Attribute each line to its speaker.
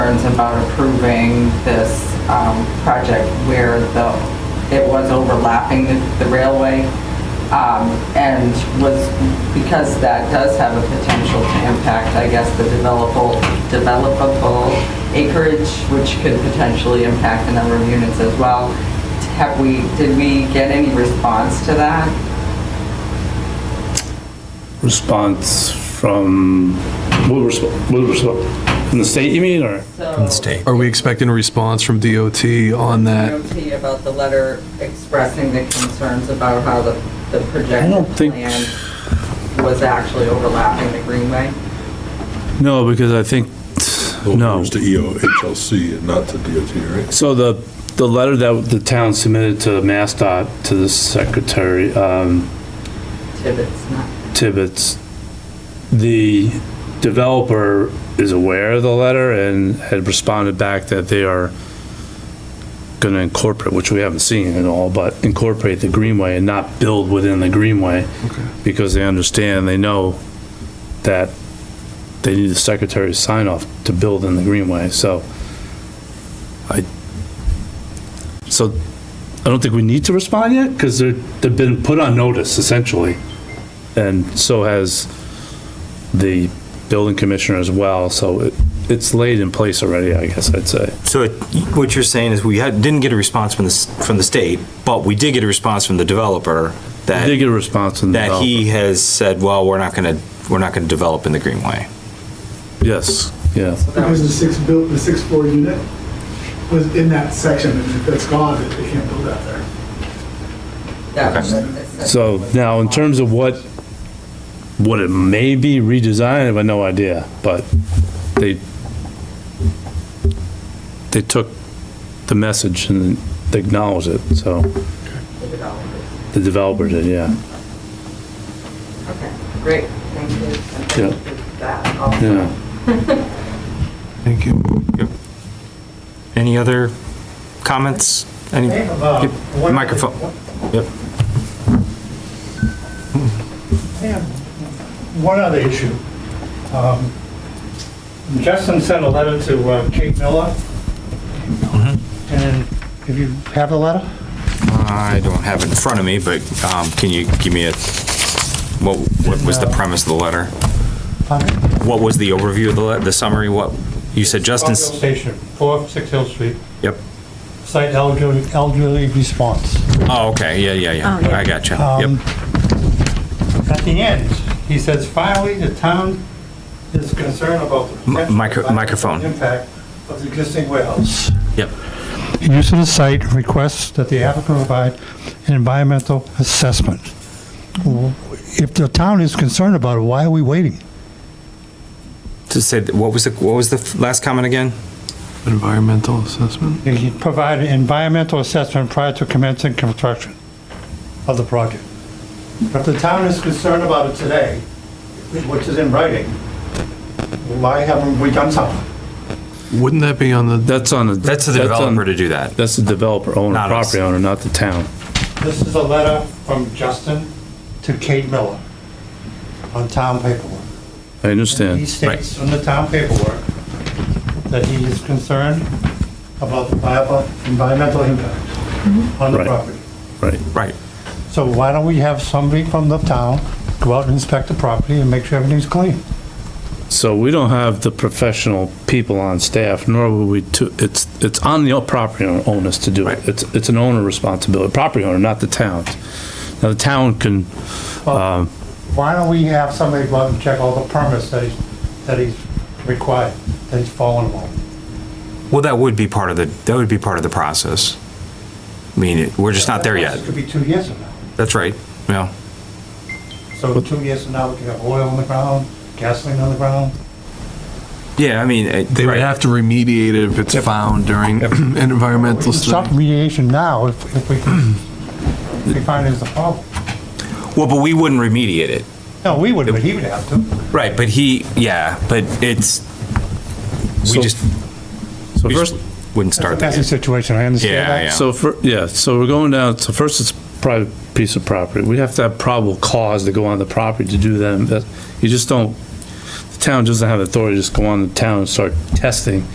Speaker 1: concerns about approving this um, project where the, it was overlapping the- the railway um, and was, because that does have a potential to impact, I guess, the developable, developable acreage, which could potentially impact the number of units as well. Have we, did we get any response to that?
Speaker 2: response from, we'll resp- we'll resp- from the state, you mean, or?
Speaker 1: From
Speaker 3: Are we expecting a response from DOT on that?
Speaker 1: DOT about the letter expressing the concerns about how the, the projected
Speaker 2: think-
Speaker 1: plan was actually overlapping the greenway.
Speaker 2: No, because I think,
Speaker 4: Well, It
Speaker 2: no.
Speaker 4: was to EOHLC and not to DOT, right?
Speaker 2: So the, the letter that the town submitted to MassDOT, to the secretary, um,
Speaker 1: Tibbetts, not,
Speaker 2: Tibbetts, the developer is aware of the letter and had responded back that they are gonna incorporate, which we haven't seen at all, but incorporate the greenway and not build within the greenway. Because they understand, they know that they need the secretary's sign off to build in the greenway, so I, so I don't think we need to respond yet, because they're, they've been put on notice essentially. And so has the building commissioner as well, so it, it's laid in place already, I guess I'd say.
Speaker 5: So it- what you're saying is we had, didn't get a response from the, s- from the state, but we did get a response from the developer
Speaker 2: I did
Speaker 5: that,
Speaker 2: get a response from the
Speaker 5: that
Speaker 2: developer.
Speaker 5: he has said, well, we're not gonna, we're not gonna develop in the Greenway.
Speaker 2: Yes, yeah.
Speaker 1: so that
Speaker 6: Because the
Speaker 1: was,
Speaker 6: six built, the six floor unit was in that section, and if that's gone, they can't build out there.
Speaker 1: that was.
Speaker 2: So now, in terms of what, what it may be redesigned, I have no idea, but they, they took the message and they acknowledged it, so,
Speaker 1: The developers.
Speaker 2: the developer did, yeah.
Speaker 1: Okay, great, thank you. And
Speaker 2: Yeah.
Speaker 1: thank you for That also.
Speaker 2: Yeah.
Speaker 3: Thank you.
Speaker 5: Any other comments? Any? Yep, Microphone. Yep.
Speaker 7: And Hmm. one other issue. Um, Justin sent a letter to uh, Kate Miller.
Speaker 5: Mm-hmm.
Speaker 7: And if you have the letter?
Speaker 5: I don't have it in front of me, but, um, can you give me a, what, what was the premise of the letter?
Speaker 7: Justin
Speaker 5: What was the overview of the, le- the summary? What, you said Justin's,
Speaker 7: Station, 4, 6 Hill Street,
Speaker 5: yep.
Speaker 7: site elderly elderly response.
Speaker 5: Oh, okay, yeah, yeah,
Speaker 8: Oh,
Speaker 5: yeah.
Speaker 8: yeah.
Speaker 5: I gotcha.
Speaker 7: Um,
Speaker 5: Yep.
Speaker 7: At the end, he says, finally, the town is concerned about the
Speaker 5: Mi-
Speaker 7: potential
Speaker 5: micro-
Speaker 7: environmental
Speaker 5: microphone.
Speaker 7: impact of the existing warehouse.
Speaker 5: Yep.
Speaker 7: Use of the site requests that the applicant provide an environmental assessment. If the town is concerned about it, why are we waiting?
Speaker 5: To say, that- what was the, what was the f- last comment again?
Speaker 3: Environmental assessment?
Speaker 7: Provide an environmental assessment prior to commencing construction of the project. If the town is concerned about it today, which is in writing, why haven't we done something?
Speaker 3: Wouldn't that be on the,
Speaker 2: That's um, on the.
Speaker 5: That's the
Speaker 2: on-
Speaker 5: developer to do that.
Speaker 2: That's the developer owner,
Speaker 5: Not us.
Speaker 2: property owner, not the town.
Speaker 7: This is a letter from Justin to Kate Miller on town paperwork.
Speaker 2: I
Speaker 7: He
Speaker 2: understand.
Speaker 7: states on the town paperwork that he is concerned about the viable environmental impact
Speaker 5: Mm-hmm.
Speaker 7: on the
Speaker 2: Right.
Speaker 7: property.
Speaker 2: Right.
Speaker 5: Right.
Speaker 7: So why don't we have somebody from the town go out and inspect the property and make sure everything's clean?
Speaker 2: So we don't have the professional people on staff, nor will we, to- it's, it's on the property owner- owners to do it.
Speaker 5: Right.
Speaker 2: It's, it's an owner responsibility, property owner, not the town. Now, the town can, um,
Speaker 7: Why don't we have somebody go out and check all the permits that he's, that he's required, that he's following along?
Speaker 5: Well, that would be part of the, that would be part of the process. I mean, it- we're just not there yet.
Speaker 7: This could be two years from now.
Speaker 5: That's right. Yeah.
Speaker 7: So two years from now, we could have oil on the ground, gasoline on the ground.
Speaker 5: Yeah, I mean. it-
Speaker 3: they would
Speaker 5: right.
Speaker 3: have to remediate it if it's found during an environmental
Speaker 7: Stop
Speaker 3: study.
Speaker 7: remediation now if, if we, if we find there's a problem.
Speaker 5: Well, but we wouldn't remediate it.
Speaker 7: No, we would, but he would have to.
Speaker 5: Right, but he, yeah, but it's, we
Speaker 2: So-
Speaker 5: just,
Speaker 2: so
Speaker 5: we
Speaker 2: first,
Speaker 5: just wouldn't start
Speaker 7: That's the
Speaker 5: that.
Speaker 7: situation, I
Speaker 5: Yeah,
Speaker 7: understand that.
Speaker 5: yeah.
Speaker 2: so, fir- yeah, so we're going down, so first it's private piece of property. We have to have probable cause to go on the property to do them. That- You just don't, the town doesn't have authority to just go on the town and start testing